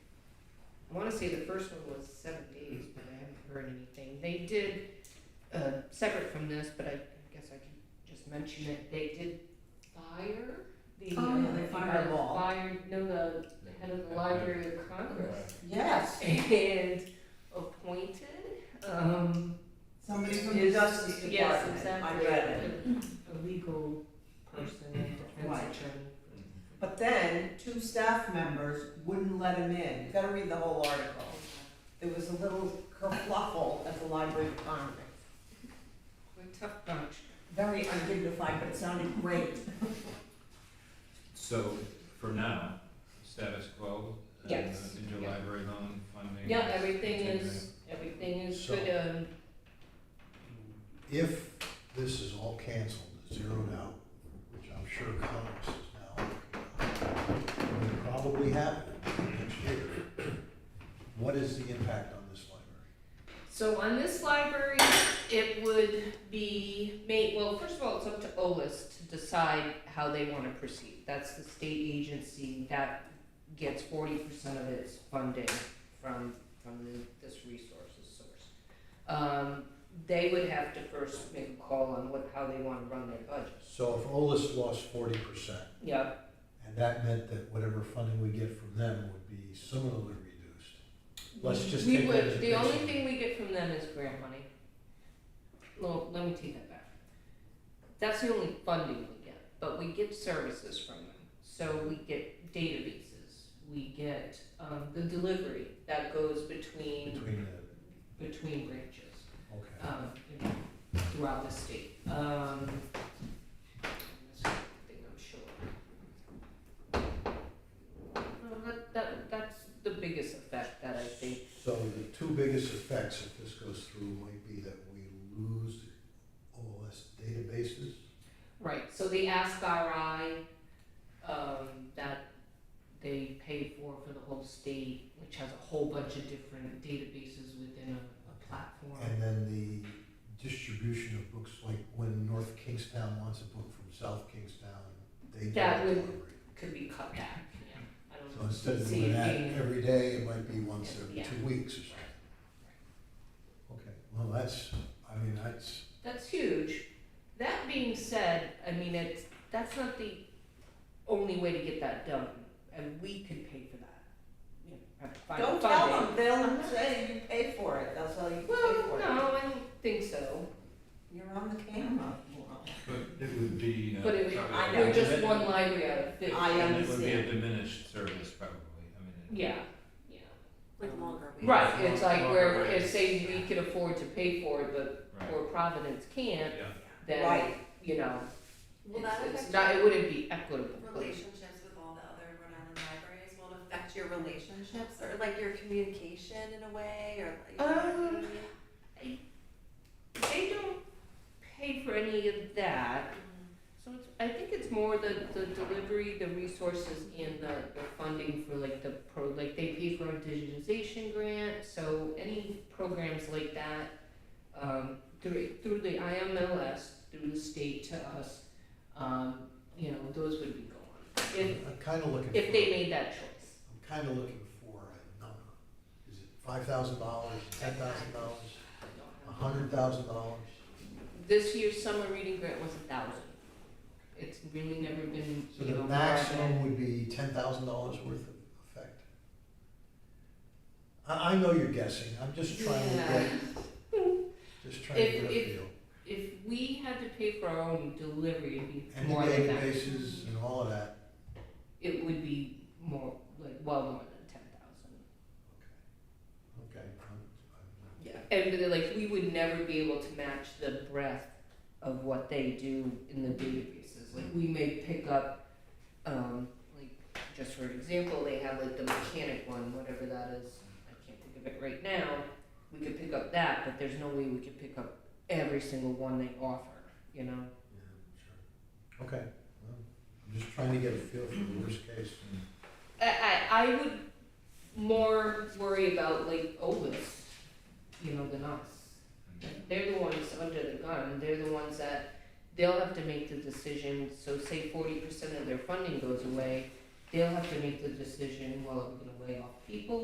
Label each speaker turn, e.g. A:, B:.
A: I wanna say the first one was seven days, but I haven't heard anything. They did, uh, separate from this, but I guess I can just mention it, they did fire the.
B: Oh, yeah, they
A: uh,
B: fired
A: the
B: Wall.
A: Fire, no, the head of the Library of Congress
B: Yes,
A: and appointed, um.
B: somebody from the
A: is-
B: Justice
A: Yes,
B: Department, I
A: exactly.
B: read it.
A: A legal person, a
B: Right.
A: defense attorney.
B: But then, two staff members wouldn't let him in, you gotta read the whole article.
A: Oh,
B: There was a little kerfluffle at the Library of Congress.
A: We're a tough bunch.
B: Very undignified, but it sounded great.
C: So for now, status quo, uh,
A: Yes.
C: interlibrary loan funding.
A: Yeah, everything is, everything is
D: So-
A: good, um,
D: If this is all canceled, zeroed out, which I'm sure Congress is now, looking at, will probably happen next year, what is the impact on this library?
A: So on this library, it would be made, well, first of all, it's up to OLS to decide how they wanna proceed. That's the state agency that gets forty percent of its funding from, from the- this resources source. Um, they would have to first make a call on what, how they wanna run their budget.
D: So if OLS lost forty percent,
A: Yeah,
D: and that meant that whatever funding we get from them would be similarly reduced, let's just
A: we
D: take that as
A: would,
D: a
A: the only
D: baseline.
A: thing we get from them is grant money. No, let me take that back. That's the only funding we get, but we get services from them. So we get databases, we get, um, the delivery that goes between,
D: between the,
A: between branches,
D: okay.
A: um, you know, throughout the state. Um, that's one thing I'm sure. No, that, that, that's the biggest effect that I think
D: So the two biggest effects if this goes through might be that we lose OLS databases.
A: Right, so the Ask RI, um, that they pay for for the whole state, which has a whole bunch of different databases within a, a platform.
D: And then the distribution of books, like when North Kingstown wants a book from South Kingstown, they do
A: That
D: it
A: would-
D: delivery.
A: Could be cut back, yeah, I don't
D: So instead of
A: see
D: doing
A: it
D: that
A: being-
D: every day, it might be once every
A: Yeah.
D: two weeks or something. Okay, well, that's, I mean, that's,
A: That's huge. That being said, I mean, it's, that's not the only way to get that done, and we could pay for that. You know, have to find
B: Don't
A: funding.
B: tell them, they'll say you pay for it, that's how you pay
A: Well,
B: for it.
A: no, I don't think so,
B: You're on the camera.
C: But it would be. uh,
A: but it,
C: probably
B: I
C: a
B: know.
A: we're just
C: dimin-
A: one library out of fifty.
B: I
C: and It would be a
B: understand.
C: diminished service probably, I mean. it-
A: Yeah, yeah.
B: Like longer.
A: Um, Right, it's like where,
C: Longer
A: if say we
C: waits.
A: could afford to pay for it, but
C: Right,
A: poor Providence can't,
C: yeah.
A: then,
B: Right.
A: you know,
E: Will
A: it's,
E: that
A: it's
E: affect
A: not, it
E: your
A: wouldn't be equitable.
E: relationships with all the other Rhode Island libraries? Will it affect your relationships or like your communication in a way or like? you know what I
A: Um,
E: mean?
A: They don't pay for any of that, so it's, I think it's more the, the delivery, the resources and the, the funding for like the pro, like they pay for a digitization grant, so any programs like that, um, through, through the IMLS, through the state to us, um, you know, those would be gone. If,
D: I'm kinda looking for.
A: if they made that choice.
D: I'm kinda looking for a number. Is it five thousand dollars, ten thousand dollars, a hundred thousand dollars?
A: This year's summer reading grant was a thousand. It's really never been,
D: So
A: you
D: the
A: know.
D: maximum would be ten thousand dollars worth of effect. I, I know you're guessing, I'm just trying to
A: Yeah.
D: get, just trying to
A: If-
D: get a
A: if-
D: feel.
A: If we had to pay for our own delivery, it'd be
D: And the
A: more than that.
D: databases and all of that,
A: It would be more, like, well, more than ten thousand.
D: okay, I'm,
A: Yeah. And but, like, we would never be able to match the breadth of what they do in the databases. Like, we may pick up, um, like, just for example, they have like the mechanic one, whatever that is. I can't think of it right now. We could pick up that, but there's no way we could pick up every single one they offer, you know?
D: I'm, yeah, sure. Okay, well, I'm just trying to get a feel for the worst case.
A: I, I, I would more worry about like Olis, you know, than us. They're the ones under the gun, they're the ones that, they'll have to make the decision, so say forty percent of their funding goes away, they'll have to make the decision, well, are we gonna lay off people?